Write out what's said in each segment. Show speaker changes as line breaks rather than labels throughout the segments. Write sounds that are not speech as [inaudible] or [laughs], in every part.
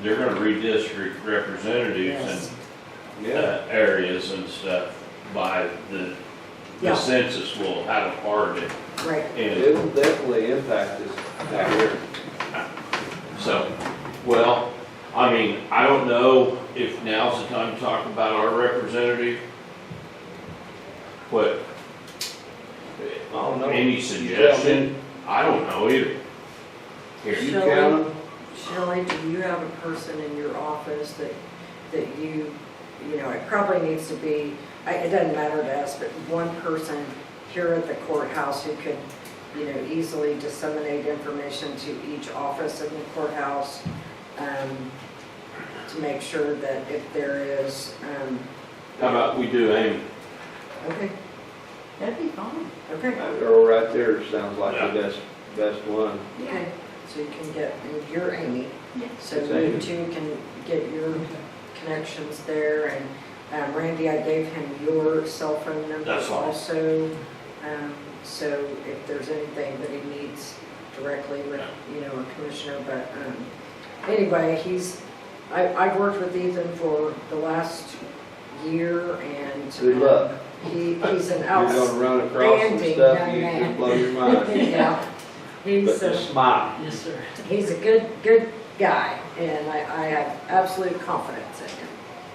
they're gonna redistrict representatives
Yes.
and, uh, areas and stuff by the, the
Yeah.
census will have a part in it.
Right.
And
It'll definitely impact us down here.
so, well, I mean, I don't know if now's the time to talk about our representative. But
I don't know.
any suggestion, I don't know either. Here.
You
Shelley?
count them?
Shelley, do you have a person in your office that, that you, you know, it probably needs to be, I- it doesn't matter to us, but one person here at the courthouse who could, you know, easily disseminate information to each office in the courthouse um, to make sure that if there is, um,
How about we do Amy?
okay,
That'd be fine.
okay,
That girl right there sounds like the best, best one.
okay. So you can get, you're Amy.
Yeah.
So you two can get your connections there, and um, Randy, I gave him your cell phone number
That's fine.
also. Um, So if there's anything that he needs directly with, you know, a commissioner, but um, anyway, he's, I, I've worked with Ethan for the last year, and. um,
Good luck.
He, he's an
You're [laughs] gonna
outs,
run across some
Outstanding
stuff,
Oh, young
you can
man.
blow your mind.
[laughs] yeah,
But
he's. uh,
just smile.
Yes, sir.
He's a good, good guy, and I, I have absolute confidence in him.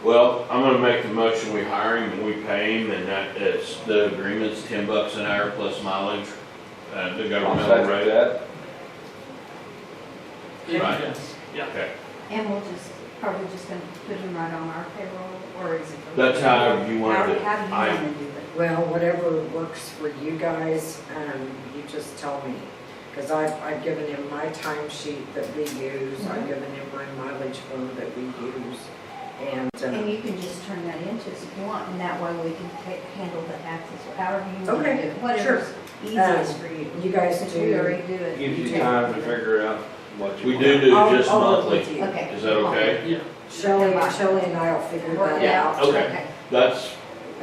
Well, I'm gonna make the motion, we hire him and we pay him, and that, it's, the agreement's ten bucks an hour plus mileage, uh, the
I'll
governmental
second
rate.
that.
Right.
Yes.
Okay,
And we'll just, probably just gonna put him right on our payroll, or is it?
that's how you want
How,
it.
how do you
I,
wanna do it?
Well, whatever works for you guys, um, you just tell me. Cause I've, I've given him my timesheet that we use, I've given him my mileage form that we use, and,
And
um,
you can just turn that into us if you want, and that way we can ta- handle the taxes, or however you want
Okay,
to
Um,
do it. Whatever's easiest for you.
you guys
Since we
do.
already do it.
Gives you time to figure out what you
we
want.
do do
I'll-
just
I'll work
monthly,
with you.
Okay.
is that okay?
Yeah.
Shelley, Shelley and I'll figure
Work
that
it
Yeah,
out.
out.
okay. That's,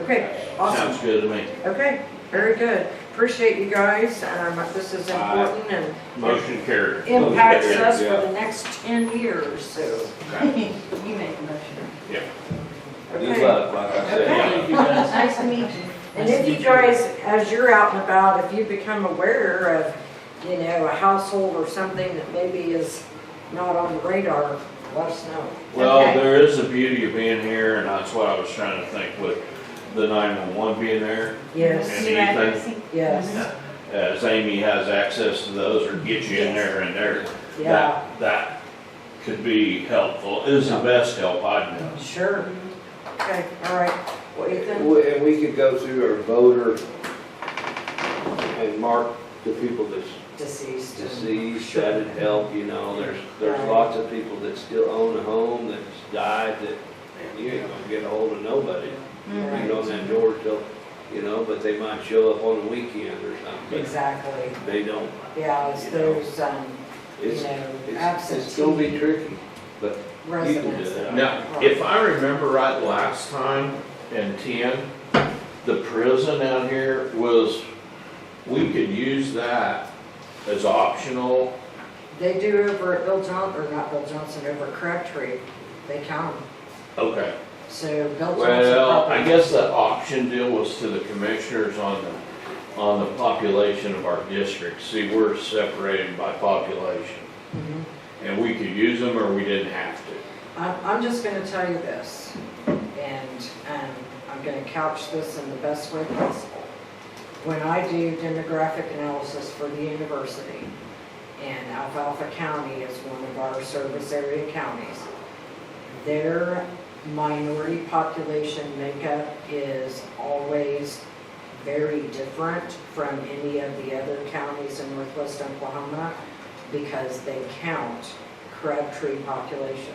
Okay, awesome.
sounds good to me.
Okay, very good. Appreciate you guys, um, this is
Aye.
important and
Motion carried.
impacts us
Yeah.
for the next 10 years, so.
[laughs] You make the motion.
Good
okay.
luck, like I
Okay.
said.
Thank you, guys.
Nice to meet you.
And if you guys, as you're out and about, if you become aware of, you know, a household or something that maybe is not on the radar, let us know.
Well,
Okay.
there is the beauty of being here, and that's what I was trying to think with the nine-one-one being there.
Yes,
And
New
anything-
addressing.
yes,
As Amy has access to those, or get you in there and there.
yeah,
That, that could be helpful, is the best help I'd know.
sure. Okay, all right. Well, Ethan,
We- And we could go through our voter and mark the people that's
deceased. and-
deceased, that'd help, you know, there's, there's
Right.
lots of people that still own a home that's died that you ain't gonna get a hold of nobody.
Right.
You know, that door till, you know, but they might show up on a weekend or something,
Exactly,
but they don't.
yeah, it's
You know.
those, um, you
It's,
know,
it's, it's gonna be
absentee
tricky, but you can do
residents.
that.
Now, if I remember right last time in ten, the prison out here was, we could use that as optional.
They do over at Bill Johnson, or not Bill Johnson, over at Crabtree, they count 'em.
Okay.
So Bill Johnson
Well, I
probably,
guess the option deal was to the commissioners on the, on the population of our district. See, we're separated by population.
Mhm.
And we could use them or we didn't have to.
I'm, I'm just gonna tell you this, and, um, I'm gonna couch this in the best way possible. When I do demographic analysis for the university, and Alfalfa County is one of our service area counties, their minority population makeup is always very different from any of the other counties in northwest Oklahoma because they count Crabtree population.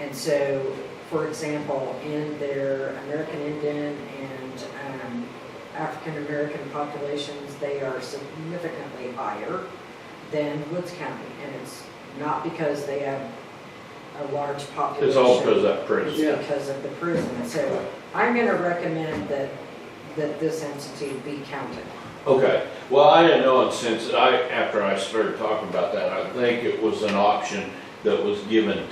And so, for example, in their American Indian and um, African-American populations, they are significantly higher than Woods County. And it's not because they have a large population.
It's all because of that
It's
prison.
Yeah.
because of the prison, so I'm gonna recommend that, that this entity be counted.
Okay, well, I didn't know it since I, after I started talking about that, I think it was an option that was given